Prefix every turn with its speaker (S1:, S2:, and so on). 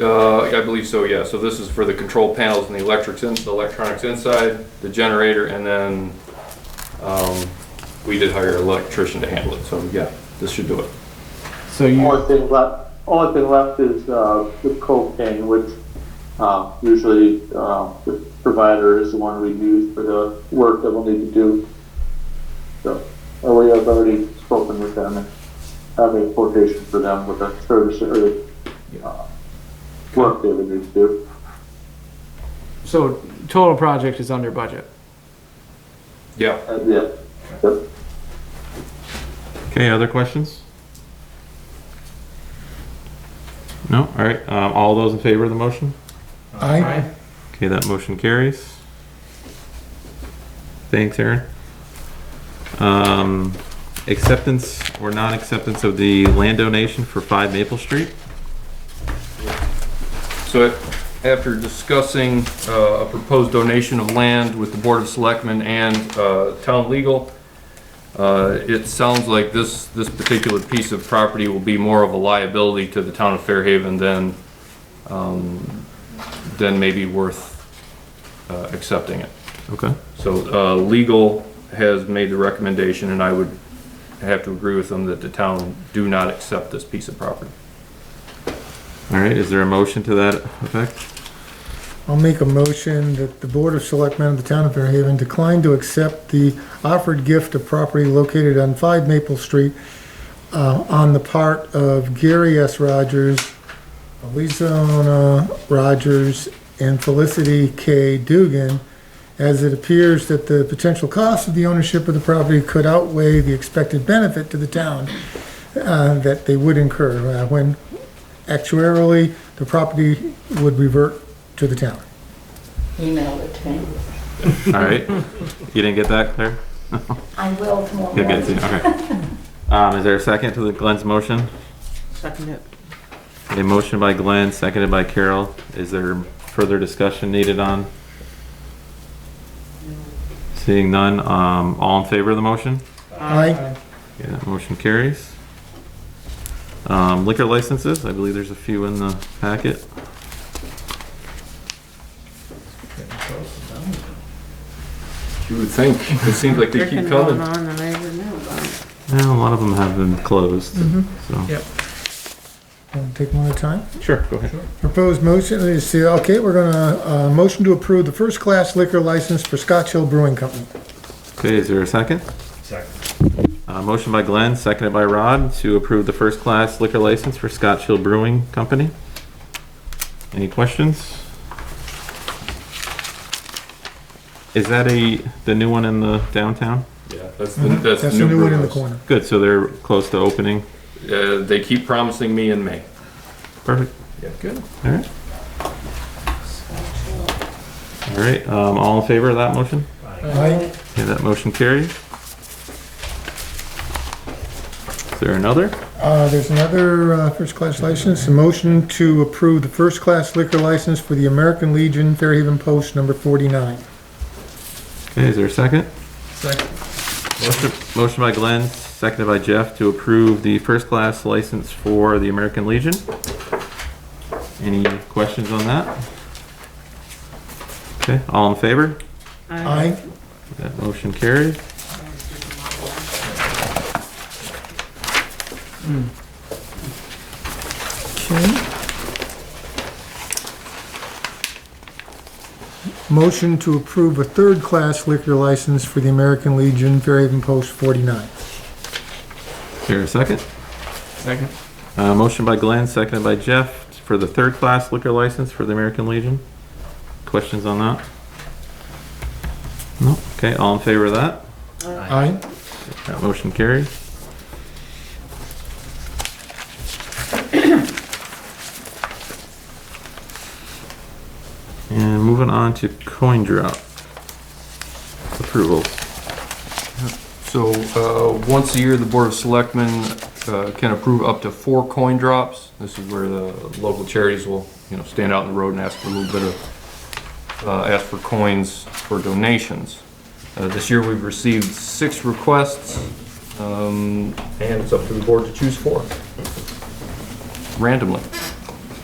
S1: Uh, I believe so, yeah. So this is for the control panels and the electrics, in- the electronics inside, the generator, and then, um, we did hire an electrician to handle it, so yeah, this should do it.
S2: So you,
S3: Only thing left, only thing left is, uh, the propane, which, um, usually, um, the provider is the one we use for the work that we'll need to do. So, uh, we have already spoken with them and have a quotation for them with a service or, uh, work they would need to do.
S2: so total project is under budget.
S1: Yeah.
S3: Uh, yeah. Yep.
S4: Okay, other questions? No? All right. Um, all those in favor of the motion?
S5: Aye.
S4: Okay, that motion carries. Thanks, Aaron. Um, acceptance or non-acceptance of the land donation for five Maple Street?
S1: So after discussing uh, a proposed donation of land with the Board of Selectmen and uh, Town Legal, uh, it sounds like this, this particular piece of property will be more of a liability to the town of Fairhaven than, um, than maybe worth uh, accepting it.
S4: Okay.
S1: So uh, Legal has made the recommendation, and I would have to agree with them that the town do not accept this piece of property.
S4: All right, is there a motion to that effect?
S5: I'll make a motion that the Board of Selectmen of the Town of Fairhaven decline to accept the offered gift of property located on 5 Maple Street uh, on the part of Gary S. Rogers, Elizona Rogers, and Felicity K. Dugan, as it appears that the potential cost of the ownership of the property could outweigh the expected benefit to the town uh, that they would incur uh, when actuarially the property would revert to the town.
S6: emailed it to me.
S4: All right. You didn't get that, Claire?
S6: I will tomorrow
S4: You'll get it,
S6: morning.
S4: soon, okay. Um, is there a second to the Glenn's motion?
S7: Second it.
S4: A motion by Glenn, seconded by Carol. Is there further discussion needed on? Seeing none, um, all in favor of the motion?
S5: Aye.
S4: Yeah, that motion carries. Um, liquor licenses, I believe there's a few in the packet.
S1: You would think. It seems like they keep
S7: Freaking
S1: coming.
S7: going on and I didn't know about it.
S4: Yeah, a lot of them have been closed,
S7: Mm-hmm.
S4: so.
S2: Yep.
S5: Wanna Take one at a time.
S4: Sure, go ahead.
S5: Proposed motion is, to- okay, we're gonna, uh, motion to approve the first-class liquor license for Scotch Hill Brewing Company.
S4: Okay, is there a second?
S8: Second.
S4: Uh, motion by Glenn, seconded by Rod to approve the first class liquor license for Scotch Hill Brewing Company. Any questions? Is that a, the new one in the downtown?
S1: Yeah, that's the, Mm-hmm. that's the
S5: That's the new one in the
S1: brewhouse.
S5: corner.
S4: Good, so they're close to opening.
S1: Uh, they keep promising me in May.
S4: Perfect.
S1: Yeah, good.
S4: All right. All right, um, all in favor of that motion?
S5: Aye.
S4: Okay, that motion carries. Is there another?
S5: Uh, there's another, uh, first-class license, a motion to approve the first-class liquor license for the American Legion Fairhaven Post number forty-nine.
S4: Okay, is there a second? Second. Motion by Glenn, seconded by Jeff to approve the first-class license for the American Legion. Any questions on that? Okay, all in favor?
S7: I-
S5: Aye.
S4: That motion carried.
S5: Okay. Motion to approve a third-class liquor license for the American Legion Fairhaven Post forty-nine.
S4: Is there a second?
S2: Second.
S4: Uh, motion by Glenn, seconded by Jeff for the third-class liquor license for the American Legion. Questions on that? No? Okay, all in favor of that?
S5: Aye.
S4: That motion carried. And moving on to coin drop approvals.
S1: So, uh, once a year, the Board of Selectmen, uh, can approve up to four coin drops. This is where the local charities will, you know, stand out in the road and ask for a little bit of, uh, ask for coins for donations. Uh, this year, we've received six requests, um, and it's up to the board to choose four. Randomly.